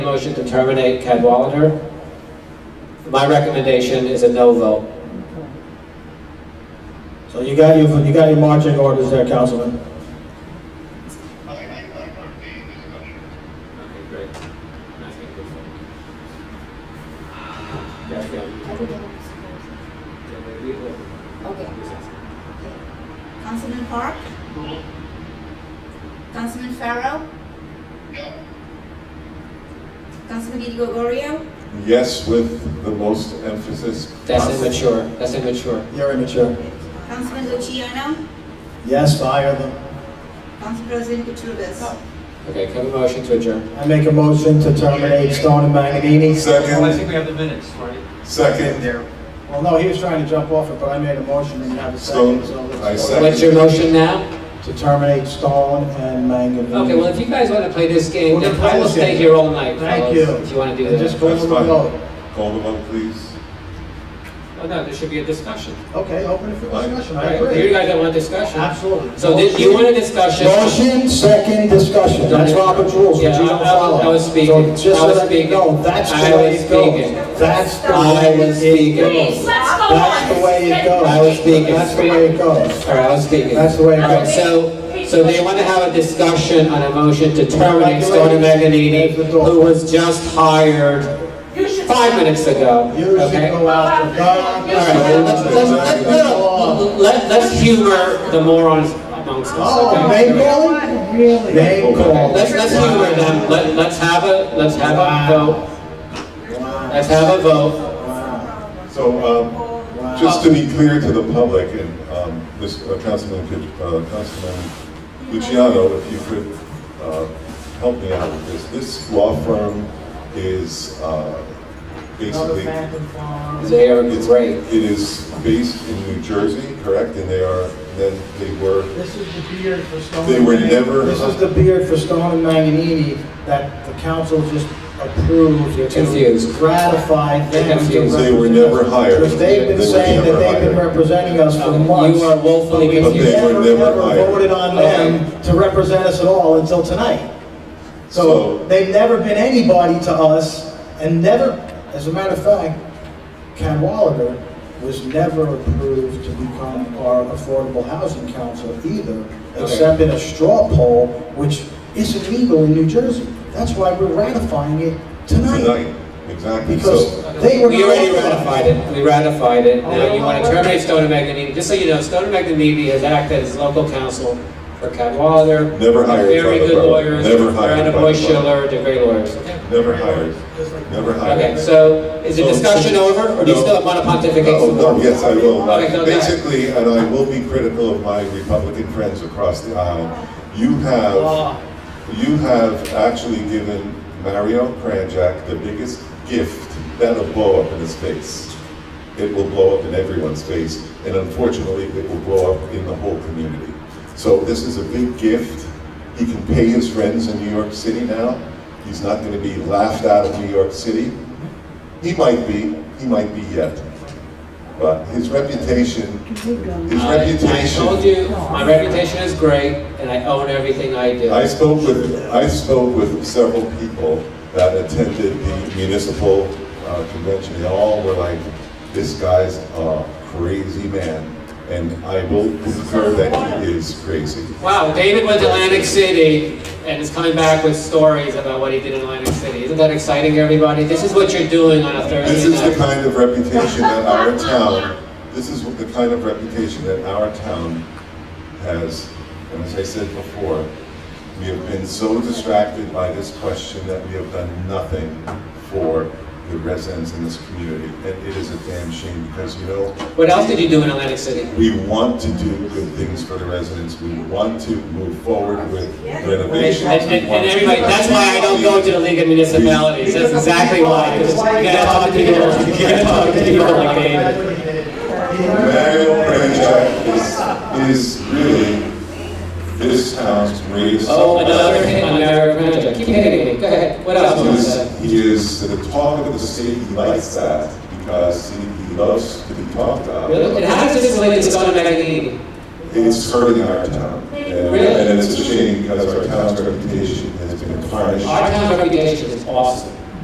Motion to terminate Cadwalader. My recommendation is a no vote. So you got your, you got your marching orders there, Councilman. Okay, great. Okay. Councilman Park? Councilman Farrell? Councilman Di Gregorio? Yes, with the most emphasis. That's possible. immature, that's immature. You're immature. Councilman Luciano? Yes, fire them. Council President Cutrubes? Okay, can I have a motion to adjourn? I make a motion to terminate Stone and Magninini. Well, I Second, think we have the minutes, right? second, Well, no, he was trying to jump off it, but I made a motion and you have a second. so Stone, let's- I second. What's your motion now? To terminate Stone and Magninini. Okay, well, if you guys want to play this game, We're then gonna I play will this stay game. here all night, Thank fellas, you. if you want to do And just that. go that's to the vote. fine. Call the vote, please. Oh, no, there should be a discussion. Okay, open it for discussion, I Right? You agree. guys don't want discussion? Absolutely. So did you want a discussion? Motion, second discussion, that's Robert's rules, which you Yeah, I- don't I- follow. I was So speaking. just I was so that you speaking. know, That's the I way was it goes. speaking. That's the I way was it speaking. goes. Please, let's go on. That's the way it goes. I was speaking. That's the way it goes. All right, I was speaking. That's the way it All right, goes. so, so they want to have a discussion on a motion to terminate Stoney Meganini, who was just hired You should five minutes ago, Usually okay? All go out to God. All right, well, let's, let's, let's, no, no, let- let's humor the morons amongst Oh, us, name okay? calling? Really? Name calling. Let's, let's humor them, let, let's have a, let's have a vote, Wow. let's have a vote. Wow. So, um, just to be clear to the public and, um, this, uh, Councilman, Kit- uh, Councilman Luciano, if you could, uh, help me out with this. This law firm is, uh, basically. They are It's great. It is based in New Jersey, correct? And they are, then they were, This is the beard for Stone. They were never- This is the beard for Stone and Magninini that the council just approved. You're confused. to Ratify You're them. to confused. They were represent us. never hired. Because they've They been were saying that never they've been hired. representing us for Okay, you months. are woefully but we confused. But they were never hired. Voted on them to represent us at all until tonight. So- So they've never been anybody to us and never, as a matter of fact, Cadwalader was never approved to become our affordable housing council either, except in a straw poll, which isn't legal in New Jersey. That's why we're ratifying it tonight, tonight, exactly. because So, they were not. We already authorized. ratified it, we ratified it, now you want to terminate Stone and Magnanini, just so you know, Stone and Magnanini has acted as local counsel for Cadwalader. Never hired by Very the good borough. lawyers, Never hired Brandon by the Boy borough. Schiller, they're great lawyers. Okay. never hired, never hired. Okay, so is the So- discussion over, or do you No. still want to pontificate Oh, some more? no, yes, I will. Okay, go ahead. Basically, and I will be critical of my Republican friends across the aisle, you have, you have actually given Mario Kranjak the biggest gift that'll blow up in his face. It will blow up in everyone's face, and unfortunately, it will blow up in the whole community. So this is a big gift. He can pay his friends in New York City now. He's not going to be laughed out of New York City. He might be, he might be yet. But his reputation, his I- I told reputation. you, my reputation is great, and I own everything I do. I spoke with, I spoke with several people that attended the municipal uh, convention. They all were like, this guy's a crazy man. And I will concur that he is crazy. Wow, David went to Atlantic City and is coming back with stories about what he did in Atlantic City. Isn't that exciting, everybody? This is what you're doing on a This Thursday is the night. kind of reputation that our town, this is the kind of reputation that our town has. And as I said before, we have been so distracted by this question that we have done nothing for the residents in this community. And it is a damn shame because, you know, What else did you do in Atlantic City? we want to do good things for the residents. We want to move forward with renovations. And, and, and everybody, that's why I don't go to the League of Municipalities, that's exactly why, because you gotta talk to people, you gotta talk to people like David. Mario Kranjak is, is really this town's greatest. Oh, another hit on Mayor Kranjak, keep hitting it, go ahead, what else? He you wanna say? is, he is the talk of the city, he likes that, because he, he loves to be talked about. Really? And how does this relate to Stone and Maggie? It's hurting our town. And Really? and it's a shame because our town's reputation has been tarnished. Our town reputation is awesome.